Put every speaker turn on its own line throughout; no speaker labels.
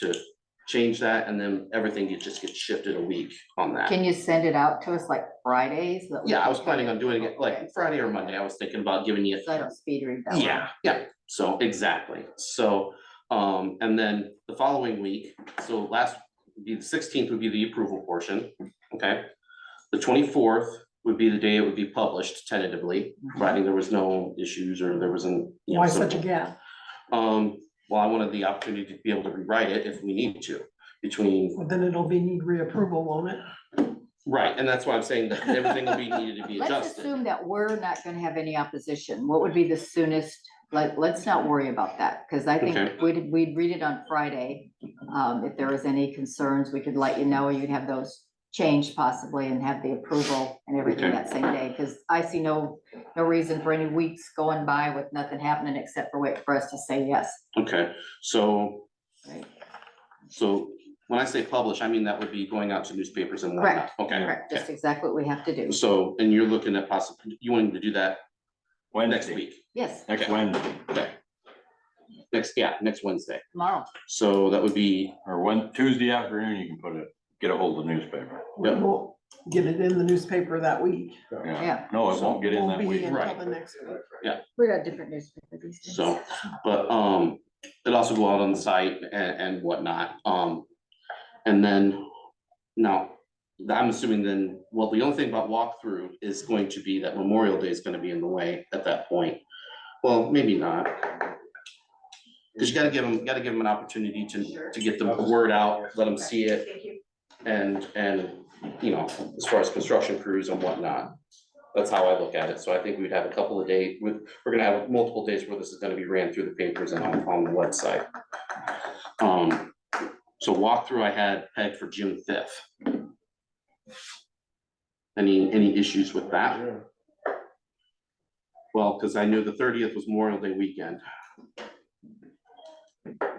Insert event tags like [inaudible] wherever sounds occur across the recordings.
to change that, and then everything get- just gets shifted a week on that.
Can you send it out to us like Fridays? that we
Yeah, I
can
was planning on doing it
Okay.
like Friday or Monday, I was thinking about giving you.
So I don't speed read that one.
Yeah, yeah, so exactly, so, um, and then the following week, so last, would be the sixteenth would be the approval portion, okay? The twenty-fourth would be the day it would be published tentatively, providing there was no issues or there wasn't. you know,
Mm-hmm. Why
some-
such a gap?
Um, well, I wanted the opportunity to be able to rewrite it if we need to, between,
Well, Then it'll be need reapproval, won't it?
right, and that's why I'm saying that everything
[laughs]
will be needed to be
Let's
adjusted.
assume that we're not gonna have any opposition. What would be the soonest? Like, let's not worry about that, because I think
Okay.
we'd, we'd read it on Friday. Um, if there was any concerns, we could let you know, you'd have those changed possibly and have the approval and everything
Okay.
that same day, because I see no, no reason for any weeks going by with nothing happening except for wait for us to say yes.
Okay, so
Right.
So when I say publish, I mean that would be going out to newspapers and whatnot.
Correct,
Okay.
Correct, just exactly what we have to do.
okay. So, and you're looking at possibly, you wanting to do that next
Wednesday,
week?
Yes,
next Wednesday,
Okay. Next, yeah, next Wednesday.
tomorrow.
So that would be,
or when, Tuesday afternoon, you can put it, get a hold of the newspaper.
Yeah.
We'll get it in the newspaper that week.
Yeah.
No, it won't get in
Won't
that
be
week.
Right.
Until the next week.
We got different newspaper these days.
so, but, um, it also go out on the site and, and whatnot. Um, and then, now, I'm assuming then, well, the only thing about walkthrough is going to be that Memorial Day is gonna be in the way at that point. Well, maybe not. Cause you gotta give them, gotta give them an opportunity to, to get the word out, let them see it. And, and, you know, as far as construction crews and whatnot, that's how I look at it. So I think we'd have a couple of days, with, we're gonna have multiple days where this is gonna be ran through the papers and on, on the website. Um, so walkthrough I had pegged for June fifth. Any, any issues with that? Well, cause I knew the thirtieth was Memorial Day weekend.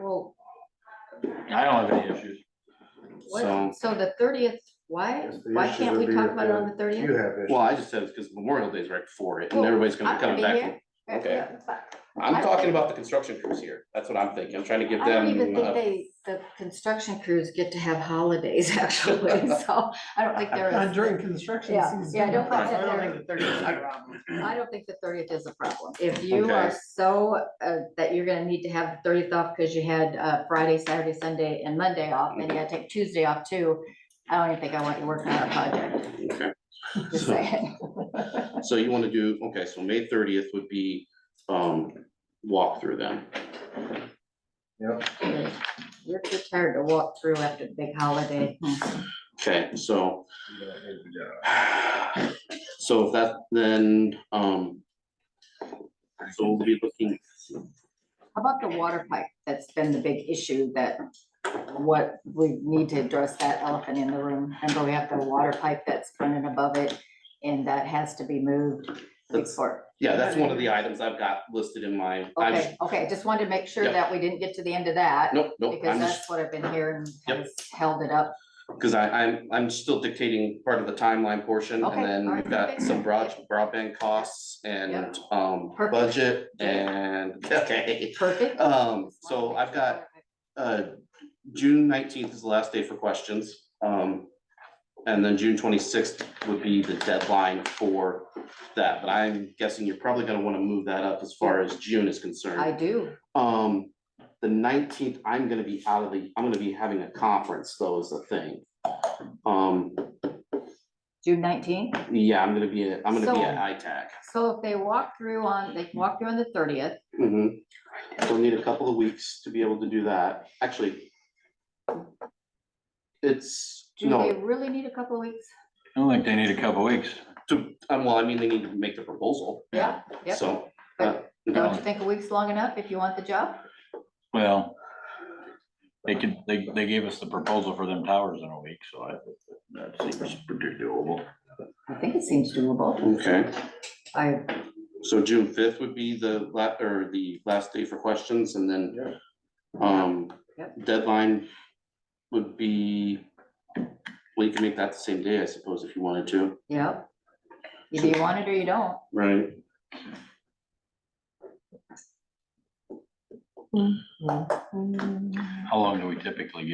Well,
I don't have any issues.
So,
what, so the thirtieth, why,
Yes, the
why
issue
can't
would
we
be
talk
if
about it on the
You
thirtieth?
have
well,
issues.
I just said it's because Memorial Day's right before it and
Well,
everybody's gonna
I'm
be coming
gonna be
back. okay.
I-
I'm talking about the construction crews here. That's what I'm thinking. I'm trying to give
I don't even
them.
think
uh,
they, the construction crews get to have holidays [laughs] actually, so I don't think there
Not
is.
during construction
Yeah,
season.
yeah, I don't
think
that they're-
think the 30th is a problem.
I don't think the thirtieth is a problem. If you are
Okay.
so, uh, that you're gonna need to have the thirtieth off because you had, uh, Friday, Saturday, Sunday and Monday off and you gotta take Tuesday off too. I don't even think I want you working on a project, [laughs]
okay.
just
So-
saying.
So you wanna do, okay, so May thirtieth would be, um, walkthrough then.
Yep.
You're too tired to walk through after the big holiday.
Okay, so, so if that, then, um, so we'll be looking,
How about the water pipe? That's been the big issue that what we need to address that elephant in the room. Remember, we have the water pipe that's running above it and that has to be moved
That's-
before.
yeah, that's one of the items I've got listed in my, I just,
Okay, okay, just wanted to make sure
Yeah.
that we didn't get to the end of that
nope, nope,
because
I'm just,
that's what I've been hearing
Yep.
has held it up.
cause I, I'm, I'm still dictating part of the timeline portion.
Okay,
And then
alright,
we've got
okay.
some broad, broadband costs and, um,
Perfect.
budget and, [laughs] okay.
Perfect.
Um, so I've got uh, June nineteenth is the last day for questions. Um, and then June twenty-sixth would be the deadline for that, but I'm guessing you're probably gonna wanna move that up as far as June is
I
concerned.
do.
Um, the nineteenth, I'm gonna be out of the, I'm gonna be having a conference, though, is the thing. Um,
June nineteenth.
yeah, I'm gonna be, at- I'm gonna be
So-
at ITAC.
So if they walk through on, they can walk through on the thirtieth,
Mhm. We'll need a couple of weeks to be able to do that, actually. It's,
do
no,
they really need a couple of weeks?
I don't think they need a couple weeks.
To, um, well, I mean, they need to make the proposal,
Yeah, yeah.
so. uh,
But Don't you think a week's long enough if you want the job?
Well, they could, they, they gave us the proposal for them towers in a week, so I, that seems pretty doable.
I think it seems doable.
Okay,
I,
so June fifth would be the la- or the last day for questions and then.
Yeah.
Um,
Yep.
deadline would be, well, you can make that the same day, I suppose, if you wanted to,
yeah. Either you want it or you don't.
right?
How long do we typically get?